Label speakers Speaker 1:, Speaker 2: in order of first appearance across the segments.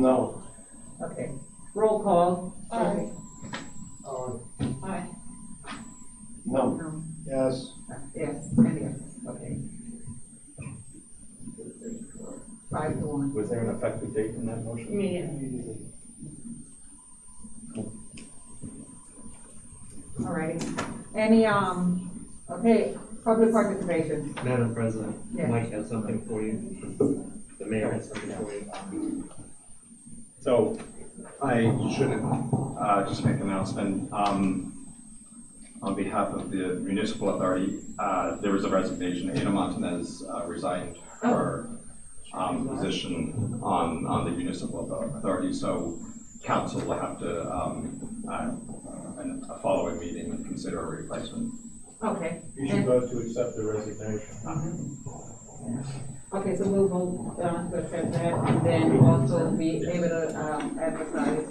Speaker 1: No.
Speaker 2: Okay, roll call.
Speaker 3: Aye.
Speaker 2: Aye.
Speaker 1: No.
Speaker 2: No.
Speaker 1: Yes.
Speaker 2: Yes, and yes, okay. Two, three, four, Five to one.
Speaker 4: Was there an effective date in that motion?
Speaker 2: All right. Any, um, okay, public participation.
Speaker 5: Madam President,
Speaker 2: Yes.
Speaker 5: Mike has something for you. The mayor has something for you.
Speaker 4: So I should uh, just make an announcement. Um, On behalf of the municipal authority, uh, there was a resignation. Ada Montanez uh, resigned her um, position on, on the municipal author- authority. So council will have to, um, uh, in a following meeting, consider a replacement.
Speaker 2: Okay.
Speaker 1: You should vote to accept the resignation.
Speaker 2: Okay, so we'll vote uh, to accept that, and then also be able to um, advertise,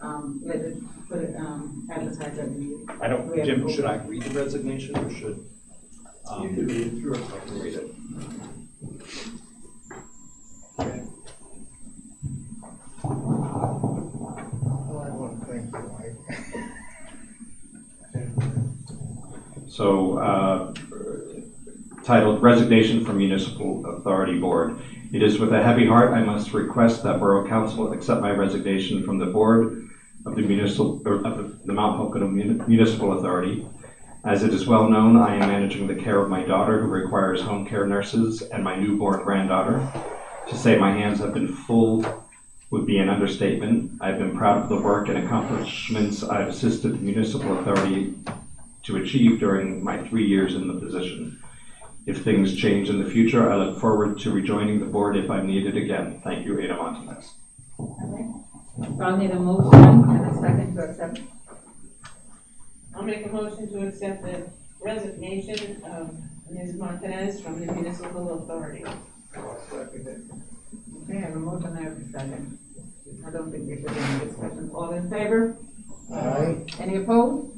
Speaker 2: um, let it, put it, um, advertise that we.
Speaker 4: I don't, Jim, should I read the resignation or should? um,
Speaker 1: You can read it through.
Speaker 4: I can read it.
Speaker 1: I want to thank you, Mike.
Speaker 4: So, uh, titled Resignation from Municipal Authority Board. It is with a heavy heart I must request that Borough Council accept my resignation from the Board of the Municipal, or of the Mount Pocono Mun- Municipal Authority. As it is well known, I am managing the care of my daughter who requires home care nurses and my newborn granddaughter. To say my hands have been full would be an understatement. I've been proud of the work and accomplishments I've assisted the municipal authority to achieve during my three years in the position. If things change in the future, I look forward to rejoining the board if I'm needed again. Thank you, Ada Montanez.
Speaker 2: So I'll need a motion and a second to accept.
Speaker 3: I'll make a motion to accept the resignation of Ms. Montanez from the municipal authority.
Speaker 1: I'll second it.
Speaker 2: Okay, I have a motion and a second. I don't think there should be any discussion. All in favor?
Speaker 1: Aye.
Speaker 2: Any opposed?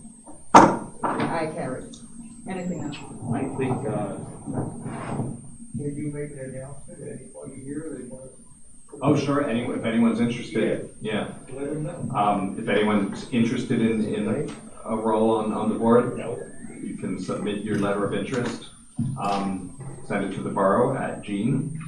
Speaker 2: I carry. Anything else?
Speaker 5: I think, uh,
Speaker 1: Did you make an announcement, anybody here, they want
Speaker 4: Oh, sure, any, if anyone's interested, yeah.
Speaker 1: to let them know?
Speaker 4: Um, if anyone's interested in, in a role on, on the board, you can submit your letter of interest. Um, send it to the borough at Jean.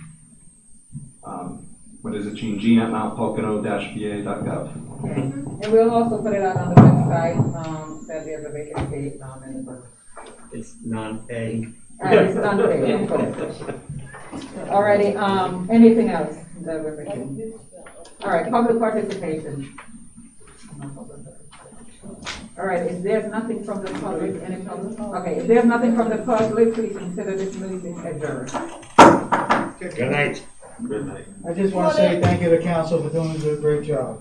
Speaker 4: Um, what is it, Jean? Jean at mountpocono-va.gov.
Speaker 2: Okay. And we'll also put it out on the website, um, that there's a vacancy, um, in the book.
Speaker 5: it's non-pay.
Speaker 2: All right, it's done, okay, All righty, um, anything else that we're missing? All right, public participation. All right, if there's nothing from the public, any public, okay, if there's nothing from the public, please consider this meeting adjourned.
Speaker 5: Good night.
Speaker 4: Good night.
Speaker 6: I just want to say thank you to council for doing a great job.